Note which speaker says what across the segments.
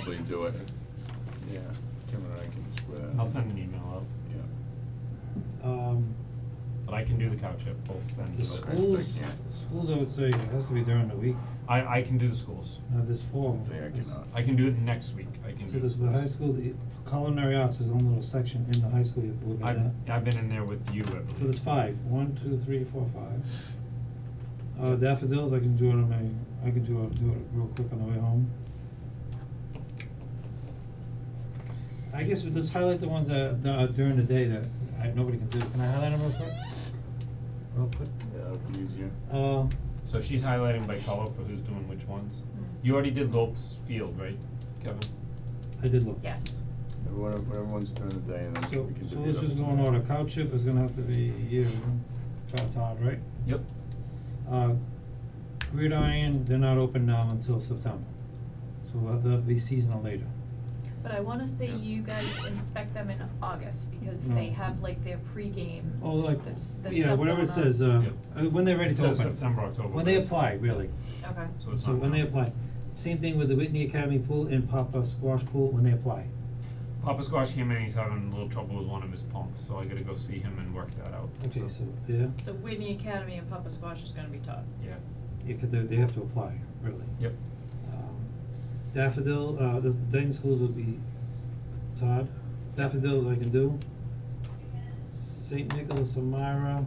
Speaker 1: actually do it. Yeah, Kim and I can square.
Speaker 2: I'll send an email out,
Speaker 1: Yeah.
Speaker 3: Um,
Speaker 2: but I can do the cow chip, both
Speaker 3: the
Speaker 2: ends of it.
Speaker 1: school-
Speaker 3: schools,
Speaker 1: can't.
Speaker 3: schools, I would say, it has to be during the week,
Speaker 2: I, I can do the schools.
Speaker 3: not this fall.
Speaker 1: Say I
Speaker 3: This-
Speaker 1: cannot.
Speaker 2: I can do it next week, I can do.
Speaker 3: So this is the high school, the culinary arts is one little section in the high school, you have to look at
Speaker 2: I've,
Speaker 3: that.
Speaker 2: I've been in there with you, I believe.
Speaker 3: So there's five. One, two, three, four, five. Uh, daffodils, I can do it on my, I can do it, do it real quick on the way home. I guess we just highlight the ones that, that are during the day that I, nobody can do, can I highlight them real quick? Real quick?
Speaker 1: Yeah, that'd be easier.
Speaker 3: Uh,
Speaker 2: So she's highlighting by color for who's doing which ones. You already did Lopes Field, right, Kevin?
Speaker 3: I did look.
Speaker 4: Yes.
Speaker 1: Everyone, everyone's during the day and then
Speaker 3: So,
Speaker 1: we can do the
Speaker 3: so let's
Speaker 1: other
Speaker 3: just go
Speaker 1: one.
Speaker 3: in order, cow chip is gonna have to be you, Todd, Todd, right?
Speaker 2: Yep.
Speaker 3: Uh, gridiron, they're not open now until September, so we'll have- that'll be seasonal later.
Speaker 4: But I wanna say
Speaker 2: Yeah.
Speaker 4: you guys inspect them in August because
Speaker 3: No.
Speaker 4: they have like their pregame.
Speaker 3: Mm. Oh, like,
Speaker 4: that's- that's
Speaker 3: yeah,
Speaker 4: stuff
Speaker 3: whatever it
Speaker 4: going on.
Speaker 3: says, uh,
Speaker 2: Yep.
Speaker 3: uh, when they're ready to open.
Speaker 2: It says September, October,
Speaker 3: When they
Speaker 2: but-
Speaker 3: apply, really.
Speaker 4: Okay.
Speaker 2: So it's
Speaker 3: So
Speaker 2: not
Speaker 3: when
Speaker 2: now.
Speaker 3: they apply. Same thing with the Whitney Academy pool and Papa Squash pool when they apply.
Speaker 2: Papa Squash came in, he's having a little trouble with one of his pumps, so I gotta go see him and work that out.
Speaker 3: Okay, so they're,
Speaker 4: So Whitney Academy and Papa Squash is gonna be taught.
Speaker 2: Yeah,
Speaker 3: yeah, cause they they have to apply, really.
Speaker 2: yep,
Speaker 3: Um, Daffodil, uh, the Dayton schools will be Todd. Daffodils I can do. Saint Nicholas, Amira.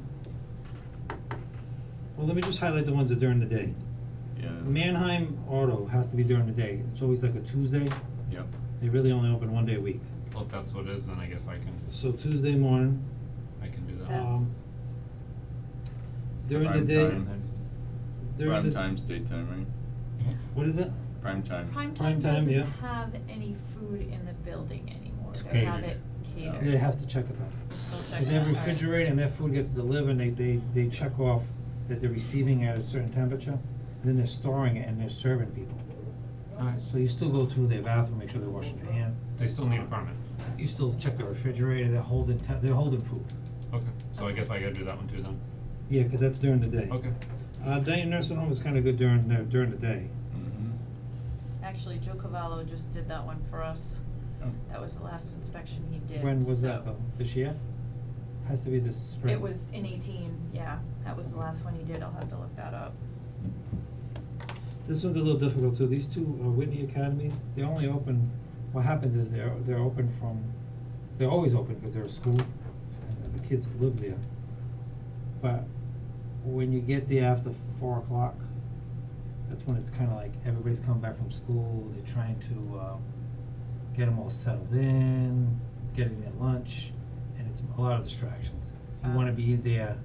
Speaker 3: Well, let me just highlight the ones that during the day.
Speaker 1: Yeah.
Speaker 3: Mannheim Auto has to be during the day. It's always like a Tuesday.
Speaker 1: Yep.
Speaker 3: They really only open one day a week.
Speaker 2: well, if that's what it is, then I guess I can,
Speaker 3: So Tuesday morning,
Speaker 2: I can do that.
Speaker 3: um,
Speaker 4: That's-
Speaker 3: during the
Speaker 1: Prime
Speaker 3: day,
Speaker 1: time.
Speaker 3: during the.
Speaker 1: Prime time's daytime, right?
Speaker 3: What is it?
Speaker 1: Prime time.
Speaker 4: Prime
Speaker 3: Prime
Speaker 4: time
Speaker 3: time,
Speaker 4: doesn't
Speaker 3: yeah.
Speaker 4: have any food in the building anymore.
Speaker 2: It's
Speaker 4: They have
Speaker 2: catered.
Speaker 4: it catered.
Speaker 3: They have to check it out.
Speaker 4: We're Still
Speaker 3: If
Speaker 4: checking.
Speaker 3: they
Speaker 4: that, alright.
Speaker 3: refrigerate and their food gets delivered, they, they, they check off that they're receiving at a certain temperature, and then they're storing it and they're serving people.
Speaker 2: Alright,
Speaker 3: So you still go through their bathroom, make sure they're washing their hand.
Speaker 2: they still need a permit,
Speaker 3: You still check the refrigerator, they're holding, te- they're holding food.
Speaker 2: okay, so I guess I gotta do that one too then,
Speaker 3: Yeah, 'cause that's during the day.
Speaker 2: okay.
Speaker 3: Uh, Dayton nursing home is kinda good during, the- during the day.
Speaker 1: Mm-hmm.
Speaker 4: Actually, Joe Cavallo just did that one for us. That was the last inspection he did,
Speaker 3: When was that
Speaker 4: so-
Speaker 3: though? This year? Has to be this spring.
Speaker 4: It was in eighteen, yeah, that was the last one he did, I'll have to look that up.
Speaker 3: This one's a little difficult too, these two uh, Whitney Academies, they only open, what happens is they're, they're open from, they're always open because they're a school and the kids live there. But when you get there after four o'clock, that's when it's kinda like everybody's come back from school, they're trying to, uh, get them all settled in, getting their lunch, and it's a lot of distractions. You wanna
Speaker 4: Ah.
Speaker 3: be there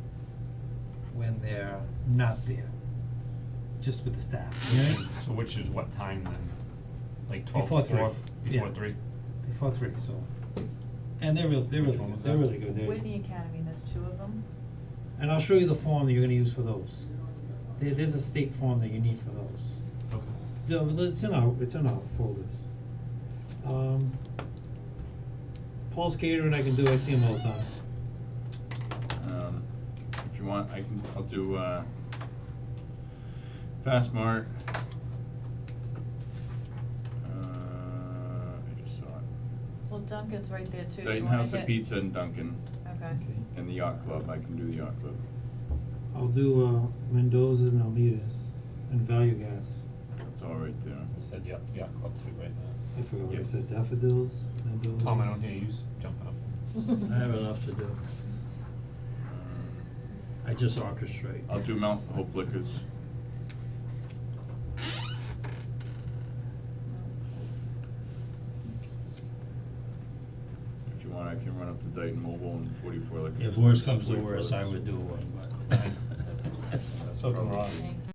Speaker 3: when they're not there, just with the staff, you know what I mean?
Speaker 2: So which is what time then? Like twelve,
Speaker 3: Before
Speaker 2: four,
Speaker 3: three.
Speaker 2: before three?
Speaker 3: Yeah. Before three, so. And they're real, they're
Speaker 2: Which
Speaker 3: really
Speaker 2: one was
Speaker 3: good, they're
Speaker 2: that?
Speaker 3: really good, they
Speaker 4: Whitney Academy, there's two of them.
Speaker 3: And I'll show you the form that you're gonna use for those. There, there's a state form that you need for those.
Speaker 2: Okay.
Speaker 3: No, but it's in our, it's in our folders. Um, Paul's catering I can do, I see him all the time.
Speaker 1: Um, if you want, I can, I'll do, uh, Fast Mart. Uh, I just saw it.
Speaker 4: Well, Duncan's right there too, you
Speaker 1: Dayton
Speaker 4: wanna
Speaker 1: House of
Speaker 4: hit-
Speaker 1: Pizza and Dunkin',
Speaker 4: Okay.
Speaker 3: Okay.
Speaker 1: and the Yacht Club, I can do the Yacht Club.
Speaker 3: I'll do, uh, Mendoza and Almeida's and Value Gas.
Speaker 1: That's all right there.
Speaker 2: You said yacht, yacht club too, right?
Speaker 3: I forgot what I
Speaker 2: Yep.
Speaker 3: said, daffodils, Mendoza.
Speaker 2: Tom, I don't hear you s- jumping up.
Speaker 3: I have enough to do.
Speaker 1: Uh,
Speaker 3: I just orchestrate.
Speaker 1: I'll do Mount Hope Liquors. If you want, I can run up to Dayton Mobile and forty-four Liquors.
Speaker 5: If worse comes to
Speaker 1: 44
Speaker 5: worse, I
Speaker 1: Liquors.
Speaker 5: would do one, but.
Speaker 2: That's something wrong.
Speaker 4: Thank